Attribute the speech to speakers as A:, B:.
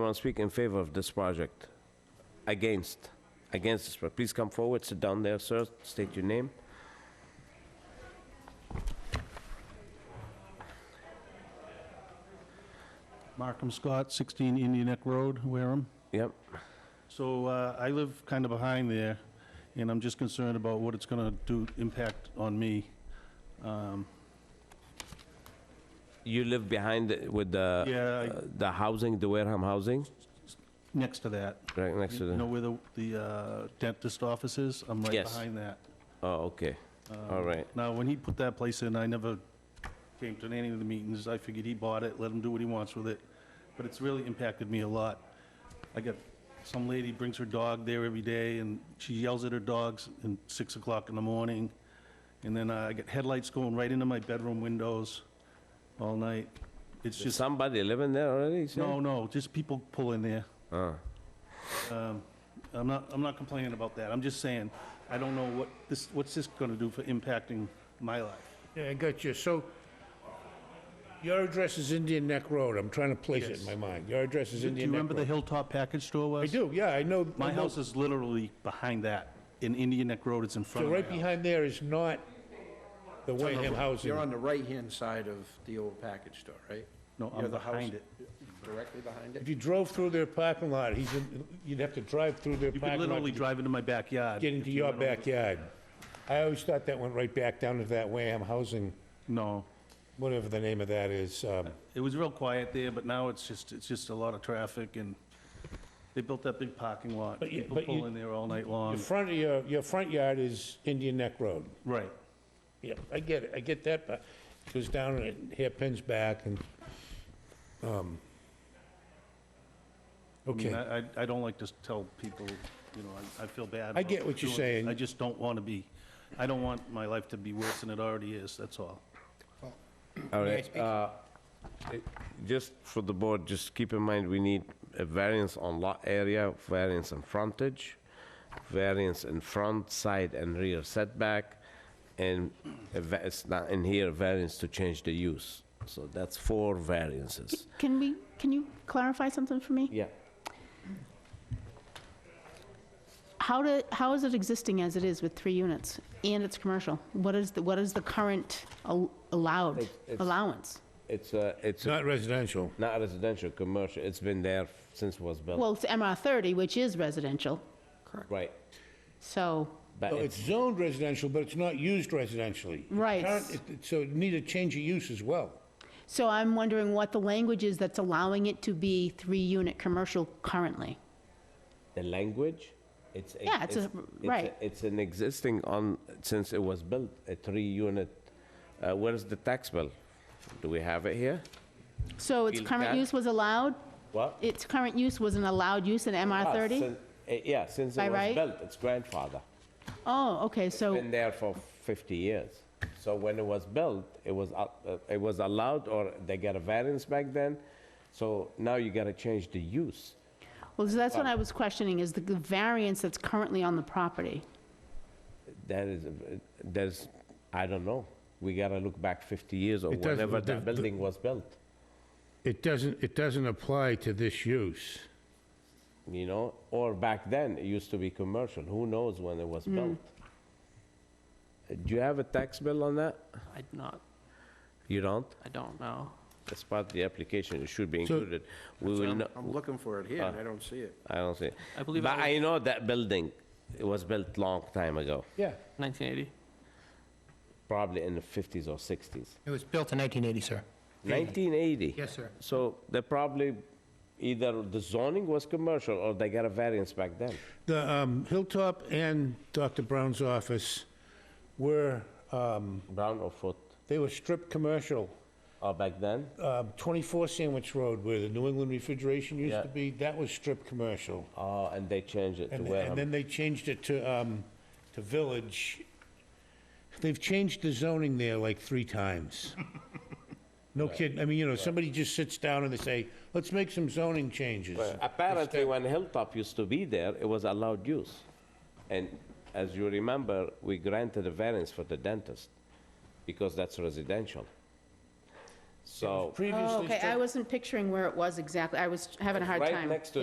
A: Want to speak in favor of this project? Against? Against this, pro- please come forward, sit down there, sir, state your name.
B: Markham Scott, 16 Indian Neck Road, Wareham.
A: Yep,
B: So uh, I live kind of behind there, and I'm just concerned about what it's going to do, impact on me. Um,
A: you live behind it with the...
B: Yeah, I-
A: uh, The housing, the Wareham housing,
B: Next to that,
A: right next to
B: you know
A: the...
B: where the the uh, dentist office is? I'm right
A: Yes.
B: behind that.
A: Oh, okay,
B: Uh,
A: all right.
B: Now, when he put that place in, I never came to any of the meetings. I figured he bought it, let him do what he wants with it. But it's really impacted me a lot. I got, some lady brings her dog there every day, and she yells at her dogs in 6 o'clock in the morning. And then uh, I get headlights going right into my bedroom windows all night. It's
A: Is
B: just,
A: somebody living there already, sir?
B: no, no, just people pull in there.
A: Ah,
B: Um, I'm not, I'm not complaining about that. I'm just saying, I don't know what this, what's this gonna do for impacting my life?
C: Yeah, I got you. So your address is Indian Neck Road. I'm trying to place it in my mind. Your address is
B: Do you
C: Indian Neck
B: remember the
C: Road.
B: Hilltop Package Store was?
C: I do, yeah, I know. I
B: My
C: know-
B: house is literally behind that, in Indian Neck Road, it's in front
C: So
B: of my
C: right
B: house.
C: behind there is not the
D: on the-
C: Wareham housing.
D: You're on the right-hand side of the old package store, right?
B: No,
D: You're
B: I'm
D: the house
B: behind it.
D: Directly behind
C: If
D: it?
C: you drove through their parking lot, he's in, you'd have to drive through their
B: You could
C: parking lot
B: literally
C: to
B: drive into my backyard.
C: get into
B: if you
C: your
B: went over-
C: backyard. I always thought that went right back down to that Wareham housing,
B: No,
C: whatever the name of that is. um,
B: it was real quiet there, but now it's just, it's just a lot of traffic, and they built that big parking lot.
C: But you-
B: People
C: but you-
B: pull in there all night
C: Your
B: long.
C: front, your, your front yard is Indian Neck Road.
B: Right.
C: Yeah, I get it, I get that, but it goes down and it hairpins back and, um,
B: I mean,
C: okay,
B: I, I- I don't like to tell people, you know, I, I feel bad.
C: I
B: about
C: get what you're
B: doing it.
C: saying.
B: I just don't want to be, I don't want my life to be worse than it already is, that's all.
A: all right. uh, it- Just for the board, just keep in mind, we need a variance on lot area, variance in frontage, variance in front, side, and rear setback, and a va- it's not in here, variance to change the use. So that's four variances.
E: Can we, can you clarify something for me?
A: Yeah.
E: How do, how is it existing as it is with three units and it's commercial? What is, the what is the current al- allowed
A: It's- it's-
E: allowance?
A: It's a, it's
C: it's
A: a-
C: not residential.
A: not residential, commercial, it's been there since it was built.
E: Well, it's MR 30, which is residential,
A: Right.
E: so,
A: But
C: So It's
A: it's,
C: zoned residential, but it's not used residentially. It's
E: Right.
C: current- it- it- So it need a change of use as well.
E: so I'm wondering what the language is that's allowing it to be three-unit commercial currently.
A: the language, it's. a-
E: Yeah, it's a-
A: a-
E: right.
A: It's an existing on, since it was built, a three-unit, uh, where's the tax bill? Do we have it here?
E: So its
A: Feel
E: current
A: that-
E: use was allowed?
A: What?
E: Its current use was an allowed use in MR
A: Ah,
E: 30?
A: sin- eh, Yeah, since
E: By
A: it was
E: right?
A: built, it's grandfather.
E: Oh, okay, so,
A: Been there for 50 years. So when it was built, it was, al- uh, it was allowed, or they got a variance back then, so now you gotta change the use.
E: well, so that's what I was questioning, is the the variance that's currently on the property.
A: That is, a- there's, I don't know. We gotta look back 50 years or
C: It doesn't-
A: whenever
C: the-
A: that
C: the-
A: building was built,
C: It doesn't, it doesn't apply to this use.
A: you know? Or back then, it used to be commercial. Who knows when it was built? Uh, Do you have a tax bill on that?
F: I not,
A: You don't?
F: I don't know.
A: That's part of the application. It should be
C: So-
A: included. We will,
D: I'm
A: no-
D: I'm looking for it here,
B: Uh.
D: and I don't see it.
A: I don't see. it.
F: I believe
A: But
F: I
A: I know that building, it was built long time ago,
C: Yeah.
F: 1980.
A: probably in the 50s or 60s.
G: It was built in 1980, sir.
A: 1980?
G: Yes, sir.
A: So they probably, either the zoning was commercial or they got a variance back then.
C: The um, Hilltop and Dr. Brown's office were, um,
A: Brown or Foot?
C: they were stripped commercial.
A: Oh, back then?
C: um, 24 Sandwich Road, where the New England Refrigeration used
A: Yeah.
C: to be, that was strip commercial.
A: Oh, and they changed it to
C: And and
A: Wareham.
C: then they changed it to, um, to Village. They've changed the zoning there like three times. No kidding, I mean, you know, somebody just sits down and they say, let's make some zoning changes.
A: Apparently, when Hilltop used to be there, it was allowed use. And as you remember, we granted a variance for the dentist because that's residential. So.
C: Previously
E: Okay,
C: struck-
E: Oh, I wasn't picturing where it was exactly, I was having a hard
A: Right
E: time.
A: next to